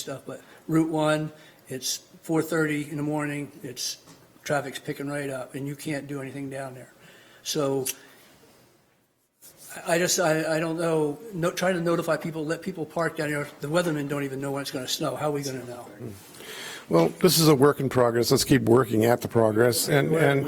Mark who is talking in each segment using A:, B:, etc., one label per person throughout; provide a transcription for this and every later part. A: stuff, but Route One, it's four thirty in the morning, it's, traffic's picking right up, and you can't do anything down there. So I- I just, I, I don't know, no, trying to notify people, let people park down here, the weathermen don't even know when it's gonna snow, how are we gonna know?
B: Mm-hmm. Well, this is a work in progress. Let's keep working at the progress. And, and,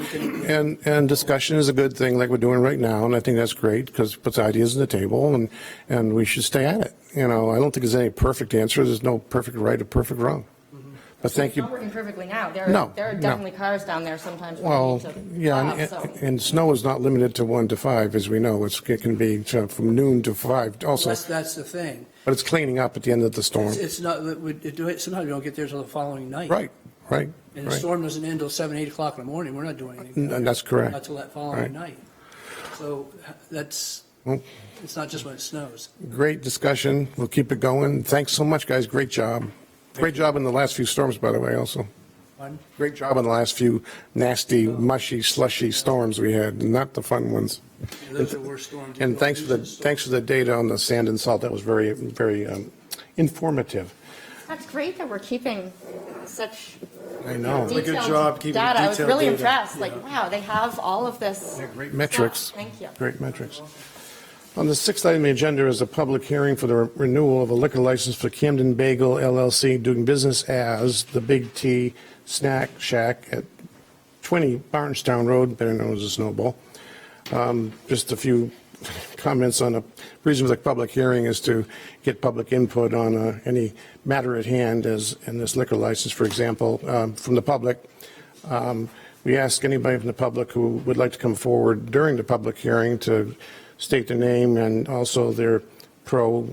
B: and, and discussion is a good thing like we're doing right now. And I think that's great because puts ideas on the table and, and we should stay at it. You know, I don't think there's any perfect answer. There's no perfect right or perfect wrong.
A: Mm-hmm.
B: But thank
C: It's not
B: you.
C: working perfectly now. There
B: No,
C: are, there are
B: no.
C: definitely cars down there sometimes. when we
B: Well,
C: need to
B: yeah,
C: plow,
B: and,
C: so-
B: and snow is not limited to one to five, as we know. It's, it can be uh, from noon to five also,
A: That's, that's the thing,
B: but it's cleaning up at the end of the storm.
A: It's- it's not, that we do it, sometimes we don't get there till the following night.
B: Right, right,
A: And the
B: right.
A: storm doesn't end till seven, eight o'clock in the morning, we're not doing anything.
B: And that's correct.
A: Not till that
B: Mm, Right.
A: following night. So h- that's,
B: Well-
A: it's not just when it snows.
B: Great discussion. We'll keep it going. Thanks so much, guys. Great job. Great job in the last few storms, by the way, also.
A: Pardon?
B: Great job in the last few nasty, mushy, slushy storms we had, not the fun ones.
A: Yeah, Those are worse storms.
B: And thanks for the, thanks for the data on the sand and salt. That was very, very um, informative.
C: That's great that we're keeping such
B: I know.
D: Did- good
C: detailed
D: job keeping
C: data. I was
D: detailed
C: really
D: data.
C: impressed, like, wow, they have all of this.
B: Great
C: stuff.
B: metrics.
C: Thank you.
B: Great metrics. On the sixth item on the agenda is a public hearing for the re- renewal of a liquor license for Camden Bagel LLC doing business as the Big T Snack Shack at 20 Barnstown Road, better known as the Snowball. Um, Just a few comments on a reason for the public hearing is to get public input on uh, any matter at hand as in this liquor license, for example, um, from the public. Um, We ask anybody from the public who would like to come forward during the public hearing to state their name and also their pro,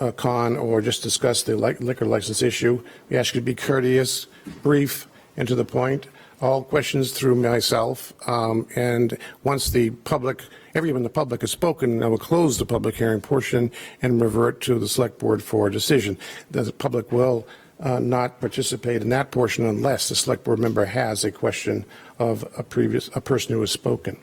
B: uh, con, or just discuss the li- liquor license issue. We ask you to be courteous, brief, and to the point. All questions through myself. Um, And once the public, everyone in the public has spoken, I will close the public hearing portion and revert to the select board for a decision. The public will uh, not participate in that portion unless the select board member has a question of a previous, a person who has spoken.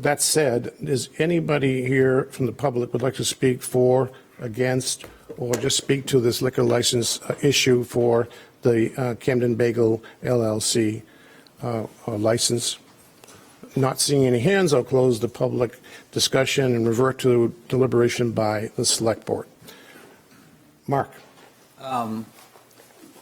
B: That said, is anybody here from the public would like to speak for, against, or just speak to this liquor license uh, issue for the uh, Camden Bagel LLC uh, uh, license? Not seeing any hands, I'll close the public discussion and revert to deliberation by the select board. Mark?
E: I'm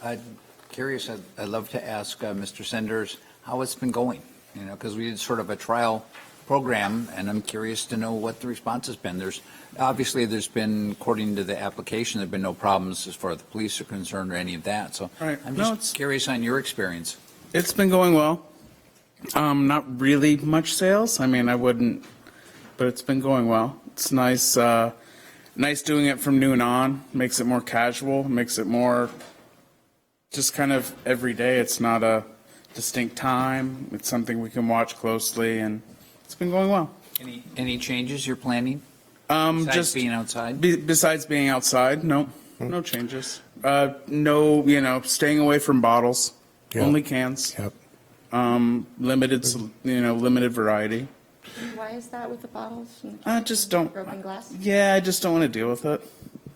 E: Um, curious, I'd- I'd love to ask uh, Mr. Senders how it's been going, you know, because we did sort of a trial program, and I'm curious to know what the response has been. There's, obviously, there's been, according to the application, there've been no problems as far as the police are concerned or any of that, so
F: Right.
E: I'm
F: No, it's-
E: just curious on your experience.
F: It's been going well. Um, not really much sales. I mean, I wouldn't, but it's been going well. It's nice, uh, nice doing it from noon on. Makes it more casual. Makes it more just kind of every day. It's not a distinct time. It's something we can watch closely, and it's been going well.
E: Any, any changes you're planning
F: Um,
E: besides
F: just
E: being outside?
F: be, besides being outside, no, no changes. Uh, no, you know, staying away from bottles.
B: Yeah.
F: Only cans.
B: Yep.
F: um, limited, s- you know, limited variety.
C: Why is that with the bottles and
F: I just don't.
C: broken glass?
F: Yeah, I just don't want to deal with it.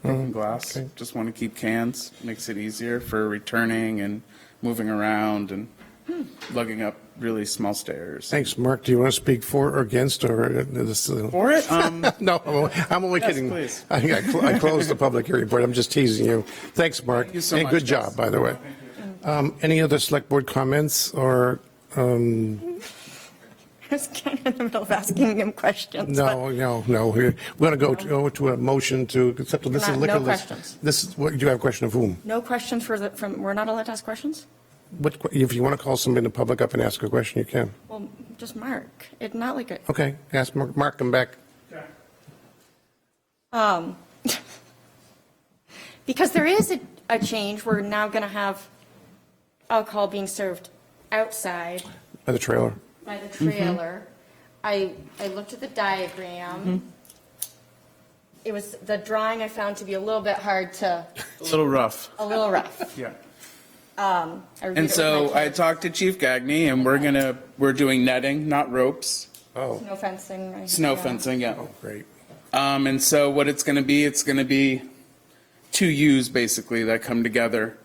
F: Broken glass.
B: Mm-hmm. okay.
F: Just want to keep cans. Makes it easier for returning and moving around and
C: Hmm.
F: lugging up really small stairs.
B: Thanks, Mark. Do you want to speak for or against, or uh, this? uh,
F: For it, um,
B: No, I'm only- I'm only
F: Yes,
B: kidding.
F: please.
B: I think I cl- I closed the public hearing part. I'm just teasing you. Thanks, Mark.
F: you so
B: And
F: much,
B: good
F: guys.
B: job, by the way. Um, Any other select board comments or, um,
C: I was kind of in the middle of asking him questions.
B: no, no, no. We're going to go to, go to a motion to accept this is
C: Not- no
B: liquor. lic-
C: questions.
B: This, is what, do you have a question of whom?
C: No questions for the, from, we're not allowed to ask questions?
B: What, que- if you want to call somebody in the public up and ask a question, you can.
C: Well, just Mark. It's not like a,
B: Okay, ask Mark, Mark, come back.
C: Um, Because there is a, a change, we're now going to have alcohol being served outside
B: By the trailer.
C: by the trailer. I, I looked at the diagram. It was, the drawing I found to be a little bit hard to,
F: a little rough.
C: a little rough.
F: Yeah.
C: Um, I reviewed it
F: And
C: with
F: so
C: my
F: I
C: kids.
F: talked to Chief Gagney, and we're gonna we're doing netting, not ropes.
B: Oh,
C: Snow fencing. right?
F: Snow
C: Yeah.
F: fencing, yeah.
B: great.
F: Um, and so what it's going to be, it's going to be two U's basically that come together.